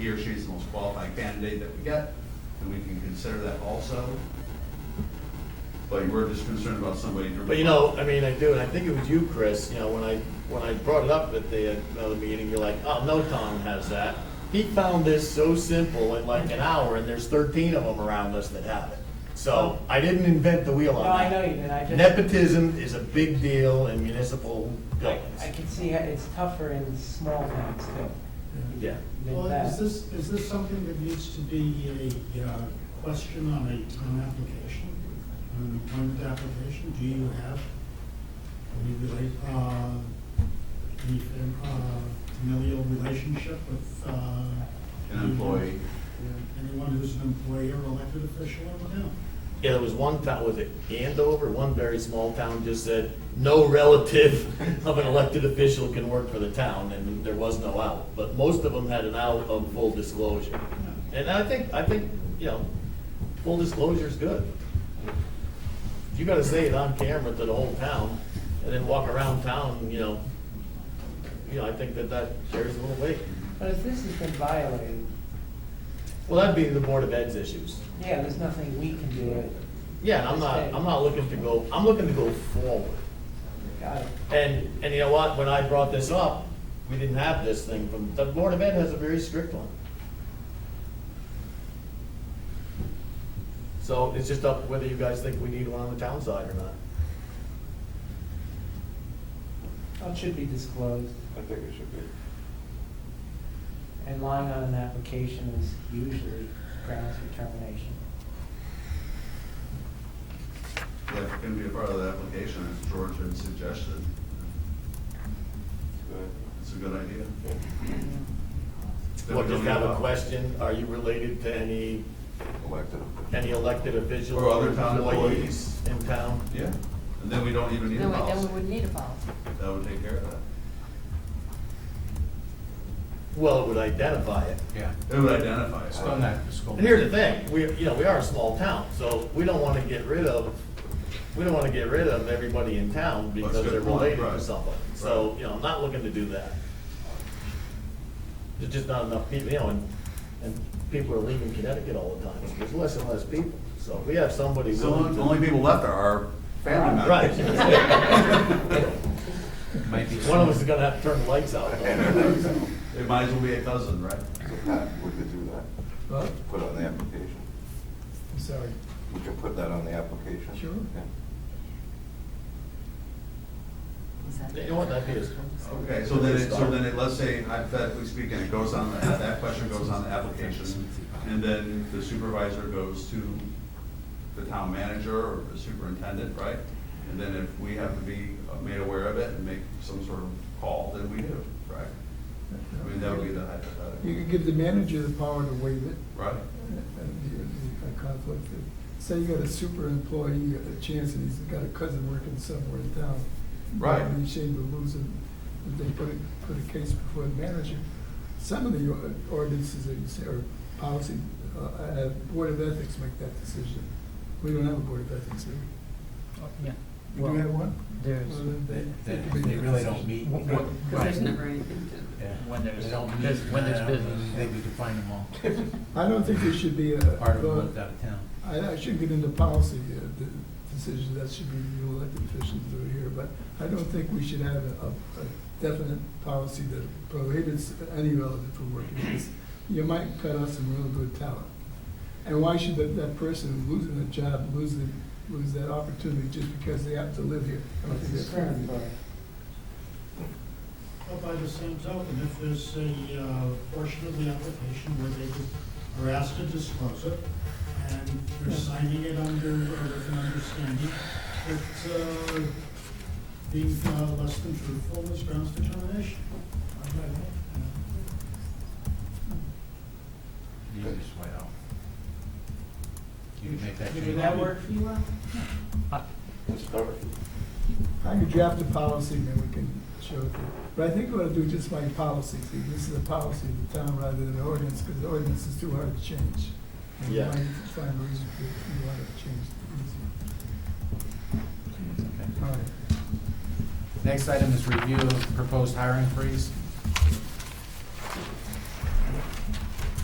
he or she's the most qualified candidate that we get, then we can consider that also. But we're just concerned about somebody. But you know, I mean, I do, and I think it was you, Chris, you know, when I, when I brought it up at the, another meeting, you're like, oh, no town has that. He found this so simple in like an hour, and there's thirteen of them around us that have it. So I didn't invent the wheel on No, that. I know you did, I just. Nepotism is a big deal in municipal I buildings. I can see how it's tougher in small towns too. Yeah. Than Well, that. is this, is this something that needs to be a uh, question on a town application, on an employment application? Do you have, any relate, uh, any uh, familial relationship with? uh, An employee. Anyone who's an employee or elected official or whatever? Yeah, there was one town, was it Andover, one very small town just said, no relative of an elected official can work for the town, and there was no out. But most of them had an out of full disclosure. And I think, I think, you know, full disclosure is good. You gotta say it on camera to the whole town, and then walk around town, you know, you know, I think that that carries a little weight. But if this has been violated, Well, that'd be the Board of Ed's issues. yeah, there's nothing we can do it. Yeah, and I'm not, I'm not looking to go, I'm looking to go forward. Got it. And, and you know what, when I brought this up, we didn't have this thing from, the Board of Ed has a very strict one. So it's just up whether you guys think we need one on the town side or not. Well, oh, it should be disclosed, I think it should be. and lying on an application is usually grounds for termination. That can be a part of the application, as George had suggested. It's a good idea. Well, just have a question, are you related to any, Elected. any elected officials? Or other town employees. In town? Yeah, and then we don't even need a No, wait, then we policy. would need a policy. That would take care of that. Well, it would identify it. Yeah, It would identify it. it's done that for school. And here's the thing, we, you know, we are a small town, so we don't wanna get rid of, we don't wanna get rid of everybody in town That's a because good they're point, related to right. somebody. So, Right. you know, I'm not looking to do that. There's just not enough people, you know, and, and people are leaving Connecticut all the time, there's less and less people, so if we have somebody So willing the only to. people left are our family members. Right. Might be One of us is some- gonna have to turn the lights out. It might as well be a cousin, right? So Pat, we could do that, Well, put on the application. I'm sorry. We could put that on the application. Sure. Yeah. Is that- You know what, that'd be a- Okay, so then, it- so then, it- let's say, hypothetically speaking, it goes on, the- that question goes on the application, and then the supervisor goes to the town manager or the superintendent, right? And then if we have to be made aware of it and make some sort of call, then we do, right? I mean, that would be the You could hypothetical, give the manager the power to waive it, right? uh, the the conflict. Say you got a super employee, you got a chance, and he's got a cousin working somewhere in town. Right. You'd be ashamed of losing, if they put a, put a case before the manager. Some of the or- ordinances that you say, or policy, uh, uh, Board of Ethics make that decision. We don't have a Board of Ethics here. Yeah. We do Well, have one? There's, Well, then they- they- they can make They they that really decision. don't meet. What- what- 'Cause Because there's Right. never anything to. Yeah. When there's- They don't meet. there's- when there's I don't business. think They would define them all, I don't think there should be a. uh, part of them lived out of town. I, I should get into policy, uh, the decisions, that should be you elected officials do it here, but I don't think we should have a, a definite policy that prohibits any relative from working. Because You might cut off some real good talent. And why should that, that person losing a job, lose the, lose that opportunity just because they happen to live here? I don't It's think that's fair. discriminatory. But by the same token, if there's a uh, portion of the application where they are asked to disclose it, and they're signing it under, uh, with an understanding that uh, being uh, less than truthful is grounds for termination. You can just wait out. You can make that. Did change. that work for you, Ron? Let's start. I could draft a policy and then we can show it. to you. But I think we ought to do just like policies, See, this is a policy of the town rather than an ordinance, because the ordinance is too hard to change. And Yeah. You might find a reason for, you want to change it easier. All right. Next item is review of proposed hiring freeze.